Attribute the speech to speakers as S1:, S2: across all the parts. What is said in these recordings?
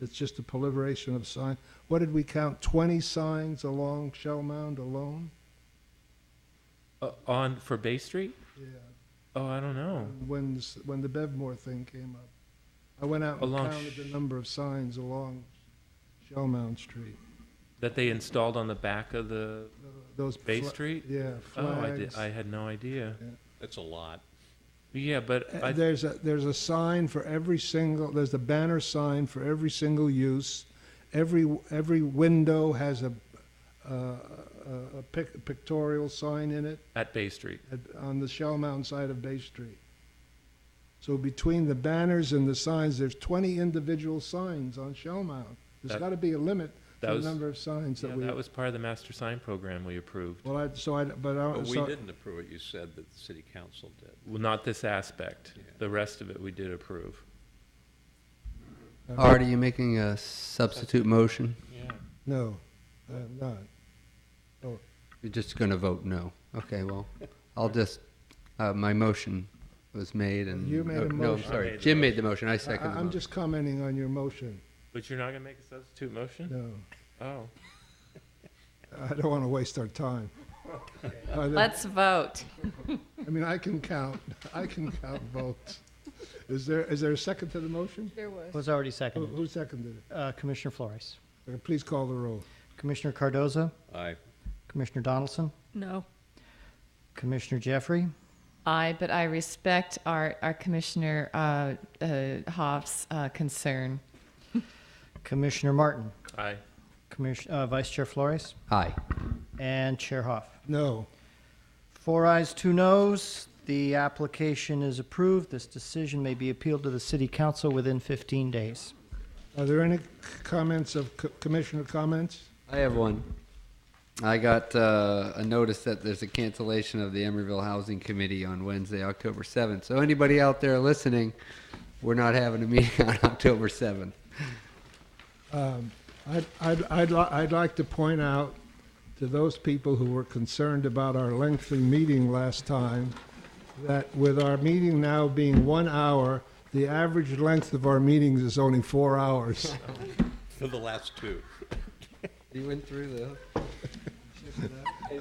S1: It's just a proliferation of signs. What did we count? Twenty signs along Shell Mound alone?
S2: Uh, on for Bay Street?
S1: Yeah.
S2: Oh, I don't know.
S1: When, s- when the Bevmore thing came up. I went out and
S2: Along
S1: counted
S2: Sh-
S1: the number of signs along Shell Mound Street.
S2: That they installed on the back of the
S1: Th- Those.
S2: Bay
S1: fla-
S2: Street?
S1: Yeah,
S2: Oh, I did.
S1: flags.
S2: I had no idea.
S3: That's a lot.
S2: Yeah, but
S1: Uh,
S2: I,
S1: There's a, there's a sign for every single, there's a banner sign for every single use. Every, every window has a, uh, a a pic- pictorial sign in it
S2: at Bay Street.
S1: at- on the Shell Mound side of Bay Street. So between the banners and the signs, there's 20 individual signs on Shell Mound. There's
S2: That-
S1: got to be a limit
S2: that
S1: to the
S2: was-
S1: number of signs
S2: Yeah,
S1: that we,
S2: that was part of the master sign program we approved.
S1: well, I, so I, but I,
S2: Oh,
S3: But we
S1: Uh, so,
S3: didn't approve it, you said that the city council did.
S2: Well, not this aspect.
S3: Yeah.
S2: The rest of it we did approve.
S4: Art, are you making a substitute motion?
S2: Yeah.
S1: no, I'm not.
S4: You're just going to vote no. Okay, well, I'll just, uh, my motion was made and.
S1: You made a
S4: no, No, I'm
S1: motion.
S2: I
S4: sorry,
S2: made the
S4: Jim made the motion, I
S1: I-
S4: second the
S1: I'm
S4: motion.
S1: just commenting on your motion,
S2: But you're not gonna make a substitute motion?
S1: no.
S2: Oh.
S1: I don't want to waste our time. Are there-
S5: Let's vote.
S1: I mean, I can count, I can count votes. Is there, is there a second to the motion?
S5: There was.
S6: Was already
S1: Who-
S6: seconded.
S1: Who seconded
S6: Uh, Commissioner Flores.
S1: it? Please call the roll.
S6: Commissioner Cardoza,
S3: Aye.
S6: Commissioner Donaldson,
S5: No.
S6: Commissioner Jeffrey,
S5: I, but I respect our, our Commissioner uh, uh, Hoff's uh, concern.
S6: Commissioner Martin,
S2: Aye.
S6: Commission, uh, Vice Chair Flores,
S4: Aye.
S6: and Chair Hoff.
S1: No.
S6: Four ayes, two noes. The application is approved. This decision may be appealed to the city council within 15 days.
S1: Are there any c- comments of co- commissioner comments?
S4: I have one. I got uh, a notice that there's a cancellation of the Emeryville Housing Committee on Wednesday, October 7th. So anybody out there listening, we're not having a meeting on October 7th.
S1: Um, I'd, I'd, I'd, li- I'd like to point out to those people who were concerned about our lengthy meeting last time that with our meeting now being one hour, the average length of our meetings is only four hours.
S3: For the last two.
S4: You went through the.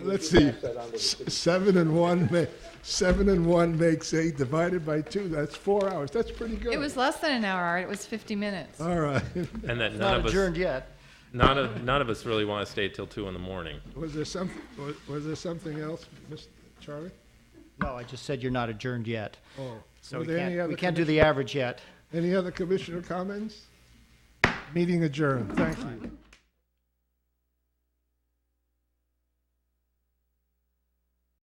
S1: Let's see, S- seven and one, ma- seven and one makes eight, divided by two, that's four hours, that's pretty good.
S5: It was less than an hour, Art. It was 50 minutes.
S1: All right,
S2: And that none
S6: Not
S2: of us,
S6: adjourned yet.
S2: none of, none of us really wanna stay till two in the morning.
S1: was there some, was- was there something else, Mr. Charlie?
S6: No, I just said you're not adjourned yet.
S1: Oh,
S6: So
S1: were
S6: we
S1: there any
S6: can't,
S1: other
S6: we can't do the average yet.
S1: commis- Any other commissioner comments? Meeting adjourned, thank you.